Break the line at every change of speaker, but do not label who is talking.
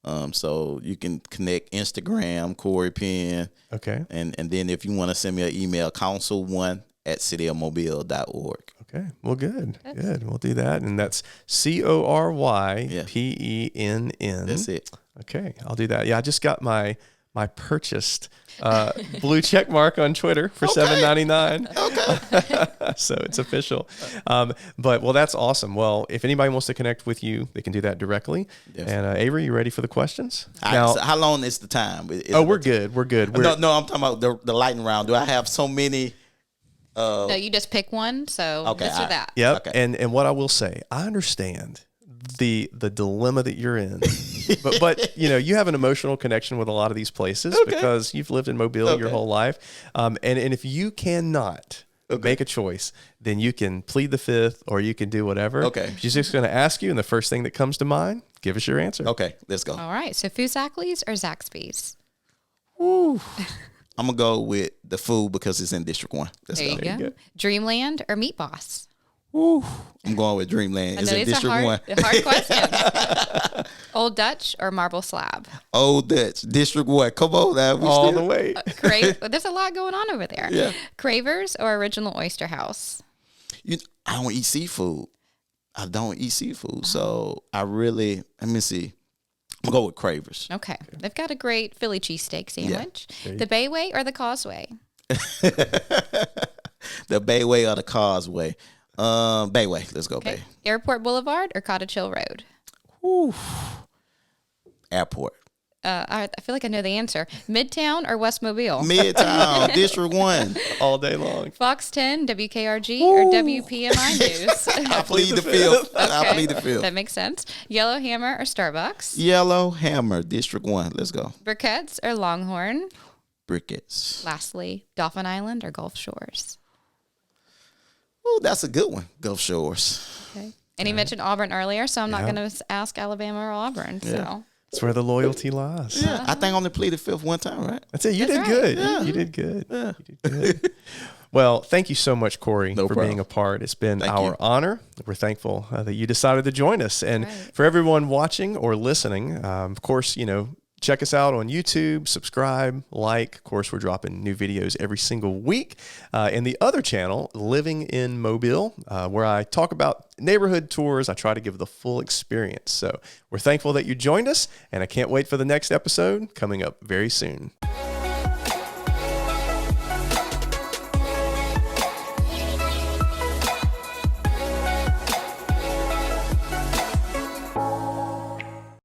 Um, so you can connect Instagram, Corey Penn,
Okay.
and and then if you want to send me an email, council one at cityofmobile.org.
Okay. Well, good. Good. We'll do that. And that's C O R Y
Yeah.
P E N N.
That's it.
Okay, I'll do that. Yeah, I just got my my purchased uh, blue check mark on Twitter for seven ninety nine. so it's official. Um, but well, that's awesome. Well, if anybody wants to connect with you, they can do that directly.
Yes.
And uh, Avery, you ready for the questions?
I-
now,
so how long is the time? Is- is
oh,
it-
we're good. We're good. We're,
no, no. I'm talking about the, the lightning round. Do I have so many?
no, you just pick one. So
Okay,
this or
I-
that.
Yep.
Okay.
And and what I will say, I understand the the dilemma that you're in. but but you know, you have an emotional connection with a lot of these places because you've lived in Mobile your whole life. Um and, and if you cannot make a choice, then you can plead the fifth or you can do whatever.
Okay.
She's just gonna ask you and the first thing that comes to mind, give us your answer.
Okay, let's go.
All right. So Fuzakli's or Zaxby's?
I'm gonna go with the food because it's in District One. Let's
There you,
go.
go. Dreamland or Meat Boss?
I'm going with Dreamland.
I
It's
know
in
these are
District
hard,
One.
hard questions. Old Dutch or Marble Slab?
Old Dutch, District One. Come on, now. We
All the
still-
way.
Crave. There's a lot going on over there.
Yeah.
Cravers or Original Oyster House?
you, I don't eat seafood. I don't eat seafood, so I really let me see. I'm gonna go with Cravers.
Okay. They've got a great Philly cheesesteak sandwich. The Bayway or the Causeway?
The Bayway or the Causeway. Um, Bayway. Let's go Bay.
Airport Boulevard or Cottage Hill Road?
Airport.
Uh, I, I feel like I know the answer. Midtown or West Mobile?
Midtown, District One.
All day long.
Fox 10, WKRG, or WPMI News.
I plead the fifth. I
Okay.
plead the fifth.
That makes sense. Yellowhammer or Starbucks?
Yellow Hammer, District One. Let's go.
Briquettes or Longhorn?
Brickets.
Lastly, Dolphin Island or Gulf Shores?
Oh, that's a good one. Gulf Shores.
Okay. And he mentioned Auburn earlier, so I'm not
Yeah.
going to ask Alabama or Auburn. So
That's where the loyalty lies.
Yeah, I think I only pleaded fifth one time, right?
That's it. You did
That's right.
good. You- You, did good. You did good. well, thank you so much, Corey,
No
for
problem.
being a part. It's been
Thank
our
you.
honor. We're thankful uh, that you decided to join us. And for everyone watching or listening, um, of course, you know, check us out on YouTube, subscribe, like. Of course, we're dropping new videos every single week. Uh, and the other channel, Living in Mobile, uh, where I talk about neighborhood tours. I try to give the full experience. So we're thankful that you joined us. And I can't wait for the next episode coming up very soon.